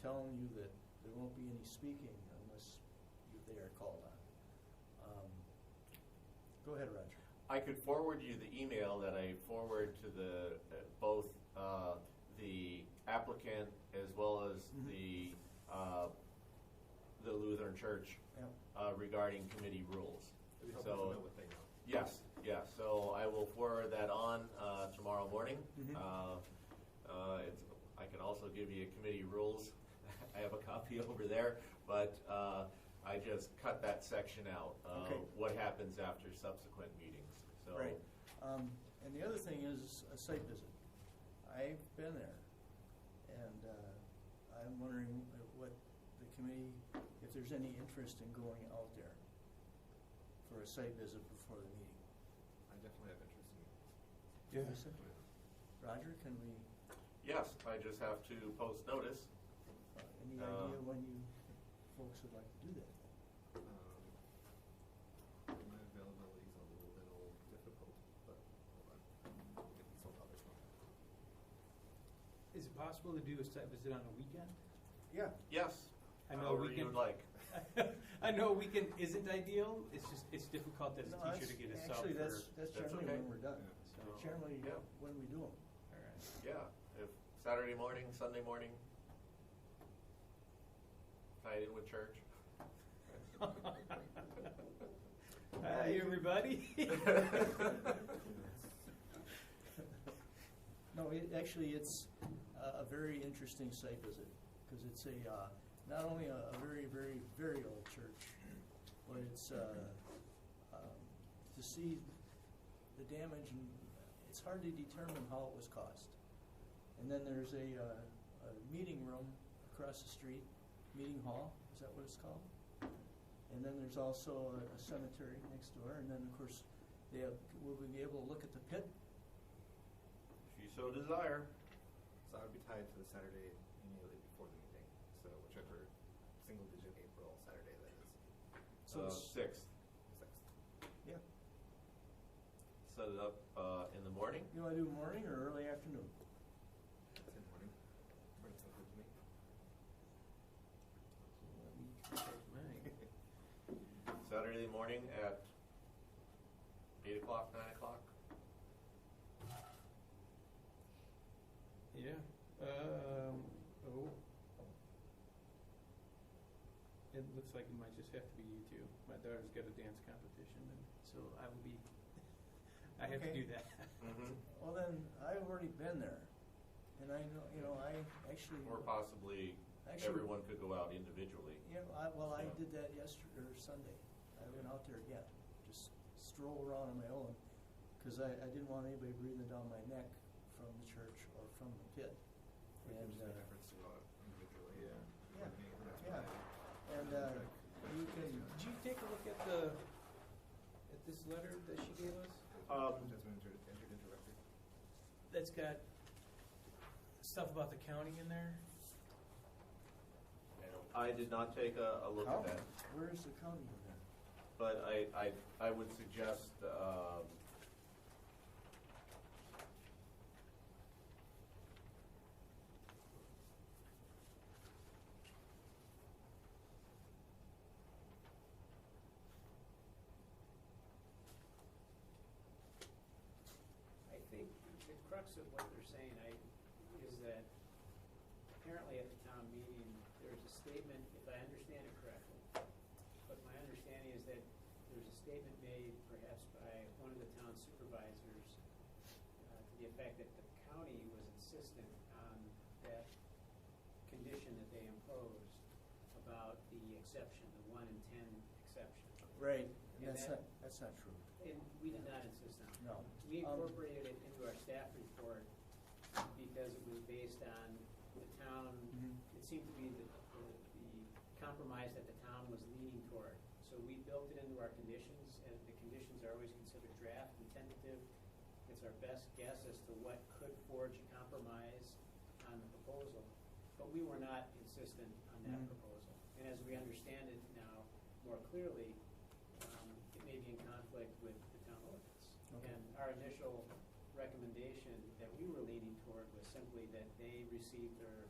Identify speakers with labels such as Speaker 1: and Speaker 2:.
Speaker 1: telling you that there won't be any speaking unless you, they are called on. Um, Go ahead, Roger.
Speaker 2: I could forward you the email that I forward to the, uh, both uh, the applicant as well as
Speaker 1: Mhm.
Speaker 2: the, uh, the Lutheran Church
Speaker 1: Yeah.
Speaker 2: uh, regarding committee rules.
Speaker 3: It'd be helpful to know
Speaker 2: So,
Speaker 3: what they know.
Speaker 2: yes, yes, so I will forward that on uh, tomorrow morning.
Speaker 4: Mm-hmm.
Speaker 3: Mm-hmm.
Speaker 1: Mhm.
Speaker 2: Uh, uh, it's- I can also give you committee rules. I have a copy over there, but uh, I just cut that section out. uh,
Speaker 1: Okay.
Speaker 2: What happens after subsequent meetings, so.
Speaker 1: Right. Um, and the other thing is a site visit. I've been there, and uh, I'm wondering what the committee, if there's any interest in going out there for a site visit before the meeting.
Speaker 3: I definitely have interest
Speaker 1: Yes.
Speaker 3: in.
Speaker 1: Roger, can we,
Speaker 2: Yes, I just have to post notice.
Speaker 1: uh, any
Speaker 2: Uh,
Speaker 1: idea when you folks would like to do that?
Speaker 3: Um, My availability is a little difficult, but hold on. I'll get this on the other phone.
Speaker 4: Is it possible to do a site visit on a weekend?
Speaker 1: Yeah.
Speaker 2: Yes.
Speaker 4: I know
Speaker 2: however
Speaker 4: we
Speaker 2: you
Speaker 4: can-
Speaker 2: would like.
Speaker 4: I know a weekend isn't ideal, it's just, it's difficult as a teacher to get a sub for.
Speaker 1: Actually, that's, that's
Speaker 2: That's
Speaker 1: generally
Speaker 2: okay.
Speaker 1: when we're done.
Speaker 2: Yeah. So,
Speaker 1: Generally,
Speaker 2: yeah.
Speaker 1: when we do them.
Speaker 4: All right.
Speaker 2: Yeah, if Saturday morning, Sunday morning, tied in with church.
Speaker 4: Hi, everybody.
Speaker 1: No, it, actually, it's a, a very interesting site visit, because it's a, uh, not only a, a very, very, very old church, but it's, uh, um, to see the damage, and it's hard to determine how it was caused. And then there's a, uh, a meeting room across the street, meeting hall, is that what it's called? And then there's also a- a cemetery next door, and then, of course, they have, will we be able to look at the pit?
Speaker 2: If you so desire.
Speaker 3: So I would be tied to the Saturday immediately before the meeting, so whichever single digit April Saturday that is,
Speaker 1: So
Speaker 2: uh,
Speaker 1: it's-
Speaker 2: sixth.
Speaker 3: sixth.
Speaker 1: Yeah.
Speaker 2: Set it up uh, in the morning.
Speaker 1: You want to do morning or early afternoon?
Speaker 3: Ten morning. Morning's not good to me.
Speaker 2: Saturday morning at eight o'clock, nine o'clock.
Speaker 4: Yeah, um, oh. It looks like it might just have to be you two. My daughter's got a dance competition, and so I will be, I have to
Speaker 1: Okay.
Speaker 4: do that.
Speaker 2: Mhm.
Speaker 1: Well, then, I've already been there, and I know, you know, I actually,
Speaker 2: Or possibly
Speaker 1: Actually-
Speaker 2: everyone could go out individually.
Speaker 1: yeah, I, well, I
Speaker 2: Yeah.
Speaker 1: did that yesterday, or Sunday. I went out there again, just stroll around on my own, because I, I didn't want anybody breathing down my neck from the church or from the pit.
Speaker 3: We can
Speaker 1: And,
Speaker 3: just
Speaker 1: uh,
Speaker 3: make efforts to go out individually.
Speaker 4: Yeah.
Speaker 1: Yeah.
Speaker 3: Coordinate, that's
Speaker 1: Yeah.
Speaker 3: what I-
Speaker 1: And, uh, you can,
Speaker 4: Did you take a look at the, at this letter that she gave us?
Speaker 2: Um,
Speaker 3: That's when entered, entered into record.
Speaker 4: That's got stuff about the county in there?
Speaker 2: I did not take a, a look
Speaker 1: how,
Speaker 2: at that.
Speaker 1: where is the county in
Speaker 2: But I, I, I would suggest, um,
Speaker 5: I think the crux of what they're saying, I, is that apparently at the town meeting, there's a statement, if I understand it correctly, but my understanding is that there's a statement made perhaps by one of the town supervisors uh, to the effect that the county was insistent on that condition that they imposed about the exception, the one in ten exception.
Speaker 1: there? Right.
Speaker 5: Yeah,
Speaker 1: That's not,
Speaker 5: that-
Speaker 1: that's not true,
Speaker 5: And we did not insist on it.
Speaker 1: no.
Speaker 5: We
Speaker 1: Um,
Speaker 5: incorporated it into our staff report because it was based on the town,
Speaker 1: Mhm.
Speaker 5: it seemed to be the, the the compromise that the town was leaning toward. So we built it into our conditions, and the conditions are always considered draft and tentative. It's our best guess as to what could forge a compromise on the proposal, but we were not insistent on
Speaker 1: Mhm.
Speaker 5: that proposal. And as we understand it now more clearly, um, it may be in conflict with the town ordinance.
Speaker 1: Okay.
Speaker 5: And our initial recommendation that we were leaning toward was simply that they receive their